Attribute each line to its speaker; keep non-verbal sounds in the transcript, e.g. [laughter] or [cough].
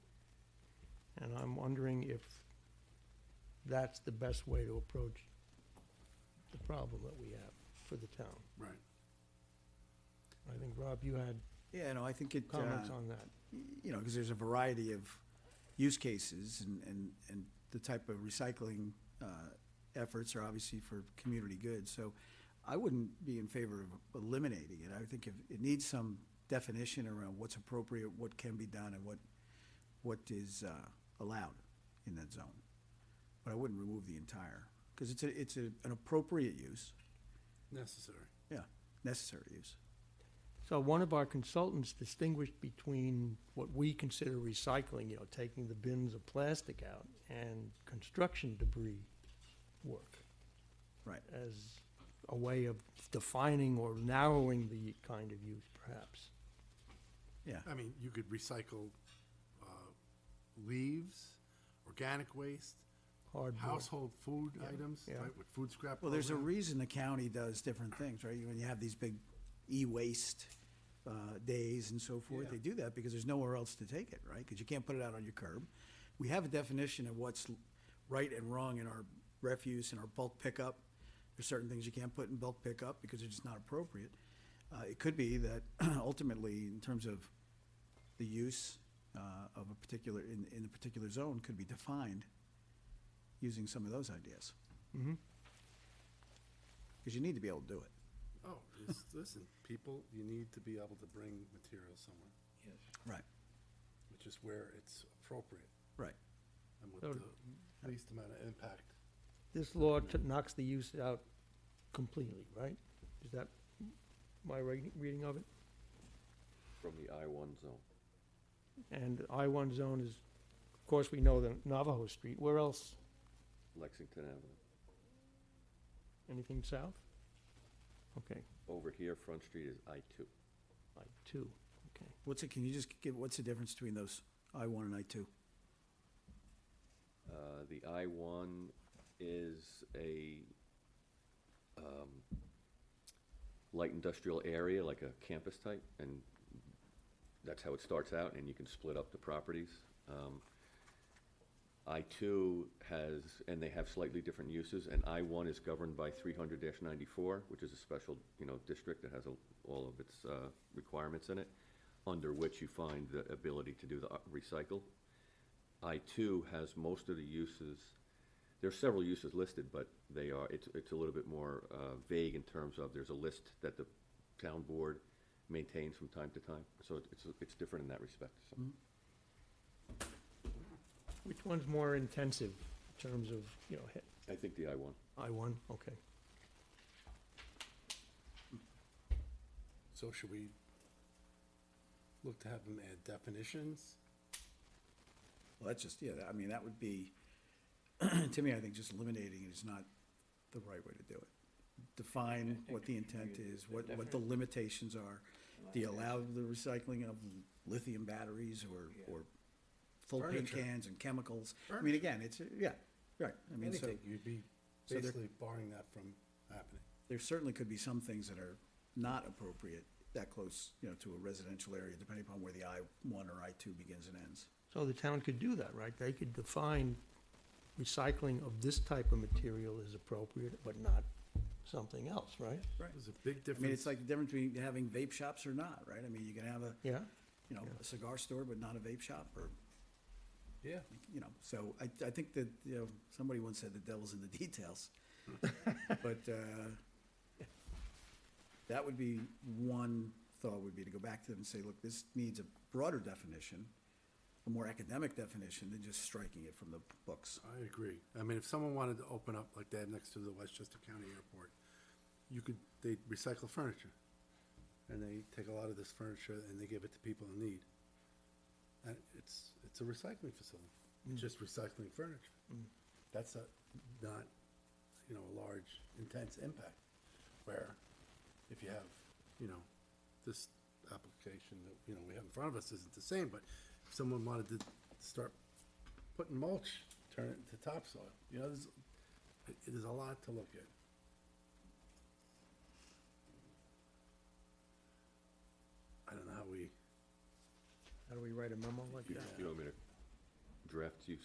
Speaker 1: and I'm wondering if that's the best way to approach the problem that we have for the town.
Speaker 2: Right.
Speaker 1: I think, Rob, you had
Speaker 2: Yeah, no, I think it, uh,
Speaker 1: comments on that.
Speaker 2: you know, because there's a variety of use cases and, and, and the type of recycling uh, efforts are obviously for community good. So I wouldn't be in favor of eliminating it. I think if, it needs some definition around what's appropriate, what can be done, and what, what is uh, allowed in that zone. But I wouldn't remove the entire, because it's a, it's a, an appropriate use,
Speaker 3: Necessary.
Speaker 2: yeah, necessary use.
Speaker 1: So one of our consultants distinguished between what we consider recycling, you know, taking the bins of plastic out, and construction debris work.
Speaker 2: Right.
Speaker 1: As a way of defining or narrowing the kind of use, perhaps.
Speaker 2: Yeah,
Speaker 3: I mean, you could recycle uh, leaves, organic waste,
Speaker 1: Hardboard.
Speaker 3: household food items,
Speaker 1: yeah.
Speaker 3: right, with food scrap.
Speaker 2: Well, there's a
Speaker 3: program.
Speaker 2: reason the county does different things, right? You- When you have these big e-waste uh, days and so forth,
Speaker 3: Yeah.
Speaker 2: they do that because there's nowhere else to take it, right? Because you can't put it out on your curb. We have a definition of what's l- right and wrong in our refuse and our bulk pickup. There's certain things you can't put in bulk pickup because it's just not appropriate. Uh, It could be that [clears throat] ultimately, in terms of the use uh, of a particular, in, in a particular zone could be defined using some of those ideas. Because you need to be able to do it.
Speaker 3: Oh, it's- [laughs] listen, people, you need to be able to bring material somewhere,
Speaker 2: Right,
Speaker 3: which is where it's appropriate
Speaker 2: right.
Speaker 3: and with
Speaker 1: So-
Speaker 3: the least amount of impact.
Speaker 1: This law t- knocks the use out completely, right? Is that my re- reading of it?
Speaker 4: from the I-1 zone.
Speaker 1: And I-1 zone is, of course, we know the Navajo Street. Where else?
Speaker 4: Lexington Avenue.
Speaker 1: Anything south? Okay,
Speaker 4: Over here, Front Street is I-2.
Speaker 1: like two, okay.
Speaker 2: What's it, can you just give, what's the difference between those I one and I two?
Speaker 4: Uh, The I-1 is a um, light industrial area, like a campus type, and that's how it starts out, and you can split up the properties. Um, I-2 has, and they have slightly different uses, and I-1 is governed by 300-94, which is a special, you know, district that has a- all of its uh, requirements in it, under which you find the ability to do the uh, recycle. I-2 has most of the uses, there are several uses listed, but they are, it's, it's a little bit more uh, vague in terms of, there's a list that the town board maintains from time to time, so it- it's, it's different in that respect, so.
Speaker 1: Which one's more intensive in terms of, you know, hit-
Speaker 4: I think the I-1.
Speaker 1: I-1? Okay.
Speaker 3: So should we look to have them add definitions?
Speaker 2: Well, that's just, yeah, I mean, that would be, [clears throat] to me, I think just eliminating it is not the right way to do it. Define what the intent is, what, what the limitations are. Do you allow the recycling of lithium batteries or, or full paint
Speaker 3: Furniture.
Speaker 2: cans and chemicals? I mean,
Speaker 3: Furniture.
Speaker 2: again, it's, yeah, right. I mean, so
Speaker 3: Anything, you'd be
Speaker 2: so there-
Speaker 3: basically barring that from happening.
Speaker 2: there certainly could be some things that are not appropriate that close, you know, to a residential area, depending upon where the I one or I two begins and ends.
Speaker 1: So the town could do that, right? They could define recycling of this type of material is appropriate, but not something else, right?
Speaker 2: Right.
Speaker 3: There's a big
Speaker 2: I mean, it's
Speaker 3: difference.
Speaker 2: like the difference between having vape shops or not, right? I mean, you can have a,
Speaker 1: Yeah?
Speaker 2: you know, a cigar store, but not a vape shop, or,
Speaker 3: Yeah,
Speaker 2: you know, so I, I think that, you know, somebody once said the devil's in the details. But, uh, that would be, one thought would be to go back to them and say, look, this needs a broader definition, a more academic definition than just striking it from the books.
Speaker 3: I agree. I mean, if someone wanted to open up like that next to the Westchester County Airport, you could, they recycle furniture. And they take a lot of this furniture and they give it to people in need. And it's, it's a recycling facility, It's just recycling furniture. That's a, not, you know, a large, intense impact. Where if you have, you know, this application that, you know, we have in front of us isn't the same, but if someone wanted to start putting mulch, turn it into topsoil. You know, there's, it- there's a lot to look at. I don't know how we.
Speaker 1: How do we write a memo like
Speaker 4: You
Speaker 1: that?
Speaker 4: you want me to draft you